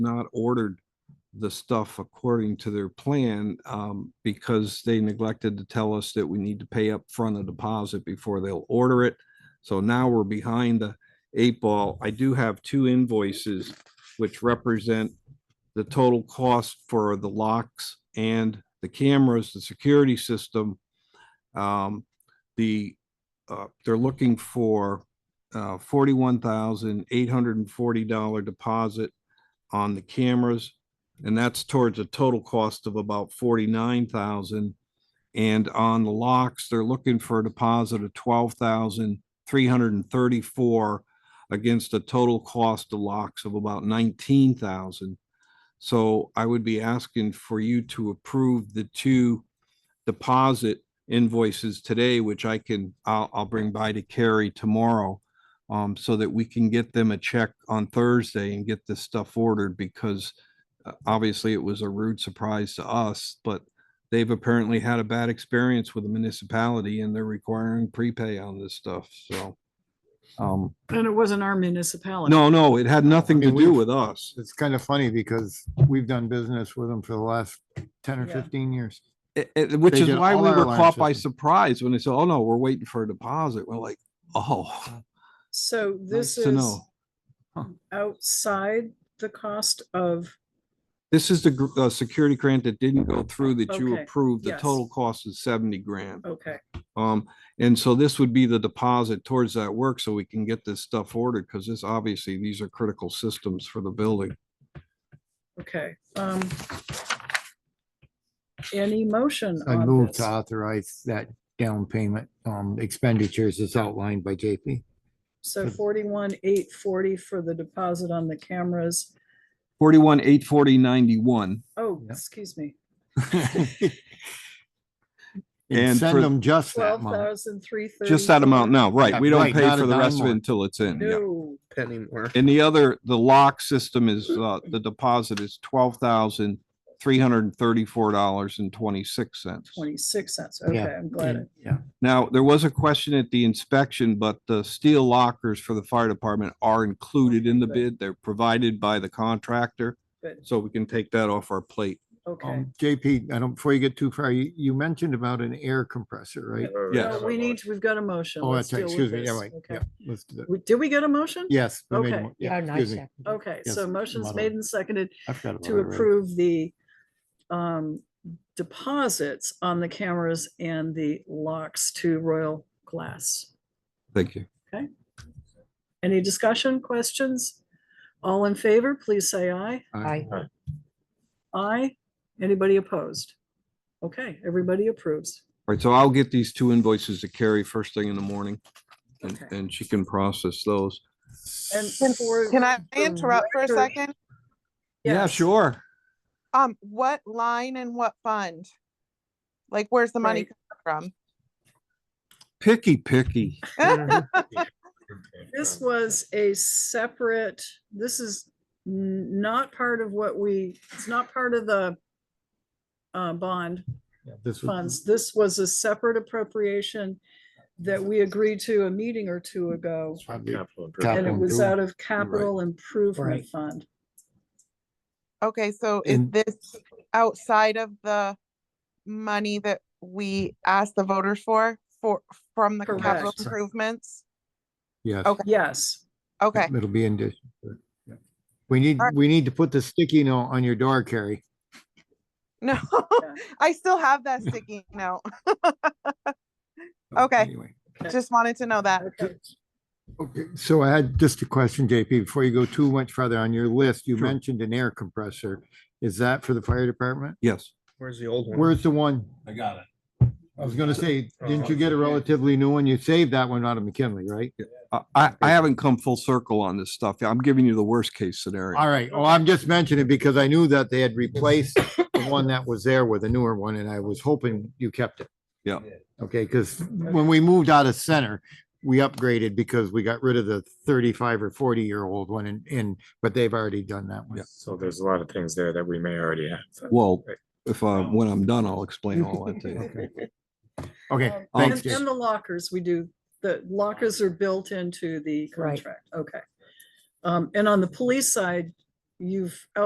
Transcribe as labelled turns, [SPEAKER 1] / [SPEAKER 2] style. [SPEAKER 1] not ordered the stuff according to their plan, um, because they neglected to tell us that we need to pay up front a deposit before they'll order it. So now we're behind the eight ball. I do have two invoices which represent the total cost for the locks and the cameras, the security system. Um, the, uh, they're looking for, uh, forty-one thousand eight hundred and forty dollar deposit on the cameras. And that's towards a total cost of about forty-nine thousand. And on the locks, they're looking for a deposit of twelve thousand three hundred and thirty-four against a total cost of locks of about nineteen thousand. So I would be asking for you to approve the two deposit invoices today, which I can, I'll, I'll bring by to Carrie tomorrow. Um, so that we can get them a check on Thursday and get this stuff ordered because uh, obviously it was a rude surprise to us, but they've apparently had a bad experience with the municipality and they're requiring prepay on this stuff, so. Um,
[SPEAKER 2] And it wasn't our municipality.
[SPEAKER 1] no, no, it had nothing to
[SPEAKER 3] mean,
[SPEAKER 1] do
[SPEAKER 3] we've-
[SPEAKER 1] with us.
[SPEAKER 3] It's kind of funny because we've done business with them for the last ten or
[SPEAKER 2] Yeah.
[SPEAKER 3] fifteen years.
[SPEAKER 1] It- it- which
[SPEAKER 3] They
[SPEAKER 1] is
[SPEAKER 3] did
[SPEAKER 1] why
[SPEAKER 3] all
[SPEAKER 1] we
[SPEAKER 3] our
[SPEAKER 1] were
[SPEAKER 3] alarm
[SPEAKER 1] caught by
[SPEAKER 3] systems.
[SPEAKER 1] surprise when they said, oh no, we're waiting for a deposit. We're like, oh,
[SPEAKER 2] So
[SPEAKER 1] nice
[SPEAKER 2] this
[SPEAKER 1] to
[SPEAKER 2] is
[SPEAKER 1] know.
[SPEAKER 2] outside the cost of,
[SPEAKER 1] This is the, gr- uh, security grant that didn't go through that you
[SPEAKER 2] Okay,
[SPEAKER 1] approved. The
[SPEAKER 2] yes.
[SPEAKER 1] total cost is seventy grand.
[SPEAKER 2] okay,
[SPEAKER 1] Um, and so this would be the deposit towards that work so we can get this stuff ordered, because this, obviously, these are critical systems for the building.
[SPEAKER 2] okay. um, Any motion
[SPEAKER 3] I
[SPEAKER 2] on
[SPEAKER 3] moved
[SPEAKER 2] this?
[SPEAKER 3] to authorize that down payment, um, expenditures as outlined by JP.
[SPEAKER 2] So forty-one, eight forty for the deposit on the cameras.
[SPEAKER 1] Forty-one, eight forty, ninety-one.
[SPEAKER 2] Oh,
[SPEAKER 3] Yep.
[SPEAKER 2] excuse me,
[SPEAKER 1] And
[SPEAKER 3] And
[SPEAKER 1] for-
[SPEAKER 3] send them just that
[SPEAKER 2] twelve
[SPEAKER 3] month.
[SPEAKER 2] thousand three thirty.
[SPEAKER 1] Just that amount now, right?
[SPEAKER 3] Yeah,
[SPEAKER 1] We don't
[SPEAKER 3] right,
[SPEAKER 1] pay
[SPEAKER 3] not
[SPEAKER 1] for
[SPEAKER 3] a
[SPEAKER 1] the
[SPEAKER 3] dime
[SPEAKER 1] rest of it
[SPEAKER 3] more.
[SPEAKER 1] until it's in, yeah.
[SPEAKER 2] No,
[SPEAKER 4] penny more.
[SPEAKER 1] And the other, the lock system is, uh, the deposit is twelve thousand, three hundred and thirty-four dollars and twenty-six cents.
[SPEAKER 2] twenty-six cents, okay,
[SPEAKER 3] Yeah.
[SPEAKER 2] I'm glad. it-
[SPEAKER 3] Yeah,
[SPEAKER 1] Now, there was a question at the inspection, but the steel lockers for the fire department are included in the
[SPEAKER 2] good.
[SPEAKER 1] bid. They're provided by the contractor.
[SPEAKER 2] Good.
[SPEAKER 1] So we can take that off our plate.
[SPEAKER 2] Okay,
[SPEAKER 3] um, JP, I don't, before you get too far, you, you mentioned about an air compressor, right?
[SPEAKER 1] Yeah.
[SPEAKER 2] No, we need, we've got a motion.
[SPEAKER 3] Oh,
[SPEAKER 2] Let's
[SPEAKER 3] that's right,
[SPEAKER 2] deal with
[SPEAKER 3] excuse me,
[SPEAKER 2] this.
[SPEAKER 3] yeah, right,
[SPEAKER 2] Okay.
[SPEAKER 3] yeah, let's do that.
[SPEAKER 2] We- Did we get a motion?
[SPEAKER 3] Yes. we made a
[SPEAKER 2] Okay.
[SPEAKER 3] mo- yeah, excuse me,
[SPEAKER 2] Okay,
[SPEAKER 3] Yes,
[SPEAKER 2] so motion's
[SPEAKER 3] model.
[SPEAKER 2] made and seconded
[SPEAKER 3] I forgot about
[SPEAKER 2] to
[SPEAKER 3] it already.
[SPEAKER 2] approve the um, deposits on the cameras and the locks to Royal Glass.
[SPEAKER 1] Thank you.
[SPEAKER 2] Any discussion, questions? All in favor, please say aye.
[SPEAKER 3] Aye.
[SPEAKER 2] Aye. Anybody opposed? Okay, everybody approves.
[SPEAKER 1] All right, so I'll get these two invoices to Carrie first thing in the morning and,
[SPEAKER 2] Okay.
[SPEAKER 1] and she can process those.
[SPEAKER 2] And
[SPEAKER 5] Can-
[SPEAKER 2] for.
[SPEAKER 5] Can I
[SPEAKER 2] the
[SPEAKER 5] interrupt for a
[SPEAKER 2] record-
[SPEAKER 5] second?
[SPEAKER 1] Yeah,
[SPEAKER 2] Yes.
[SPEAKER 1] sure.
[SPEAKER 5] Um, what line and what fund? Like, where's the money coming
[SPEAKER 1] Picky, picky.
[SPEAKER 5] from?
[SPEAKER 2] This was a separate, this is n- not part of what we, it's not part of the uh, bond.
[SPEAKER 3] This was,
[SPEAKER 2] funds. This was a separate appropriation that we agreed to a meeting or two ago.
[SPEAKER 3] probably-
[SPEAKER 2] And it
[SPEAKER 3] Capital
[SPEAKER 2] was uh,
[SPEAKER 3] improvement.
[SPEAKER 2] out of capital improvement
[SPEAKER 3] Right.
[SPEAKER 2] fund.
[SPEAKER 5] Okay, so is
[SPEAKER 3] And-
[SPEAKER 5] this outside of the money that we asked the voters for, for, from the capital
[SPEAKER 2] Correct.
[SPEAKER 5] improvements?
[SPEAKER 3] yes.
[SPEAKER 2] Oh,
[SPEAKER 5] Okay.
[SPEAKER 2] Yes,
[SPEAKER 5] Okay,
[SPEAKER 3] It'll be in addition. to it, yeah. We need,
[SPEAKER 5] Alright.
[SPEAKER 3] we need to put the sticky note on your door, Carrie.
[SPEAKER 5] no, I still have that sticky note.
[SPEAKER 3] Oh,
[SPEAKER 5] Okay.
[SPEAKER 3] anyway.
[SPEAKER 2] Okay.
[SPEAKER 5] Just wanted to know that.
[SPEAKER 2] okay,
[SPEAKER 3] Okay, so I had just a question, JP, before you go too much further on your list, you
[SPEAKER 1] Sure.
[SPEAKER 3] mentioned an air compressor. Is that for the fire department?
[SPEAKER 1] Yes.
[SPEAKER 4] Where's the old one?
[SPEAKER 3] Where's the one?
[SPEAKER 6] I got it.
[SPEAKER 3] I was gonna say, didn't you get a relatively new one? You saved that one out of McKinley, right?
[SPEAKER 1] I, I, I haven't come full circle on this stuff. I'm giving you the worst case scenario.
[SPEAKER 3] All right, well, I'm just mentioning because I knew that they had replaced the one that was there with a newer one and I was hoping you kept it.
[SPEAKER 1] Yeah.
[SPEAKER 3] Okay, because when we moved out of center, we upgraded because we got rid of the thirty-five or forty-year-old one and, and, but they've already done that one.
[SPEAKER 4] So there's a lot of things there that we may already have. so-
[SPEAKER 1] Well, if, uh, when I'm done, I'll explain all that to you.
[SPEAKER 3] Okay. Okay,
[SPEAKER 2] Um, And
[SPEAKER 3] thanks, Jay.
[SPEAKER 2] and the lockers, we do, the lockers are built into the contract, okay. Um, and on the police side, you've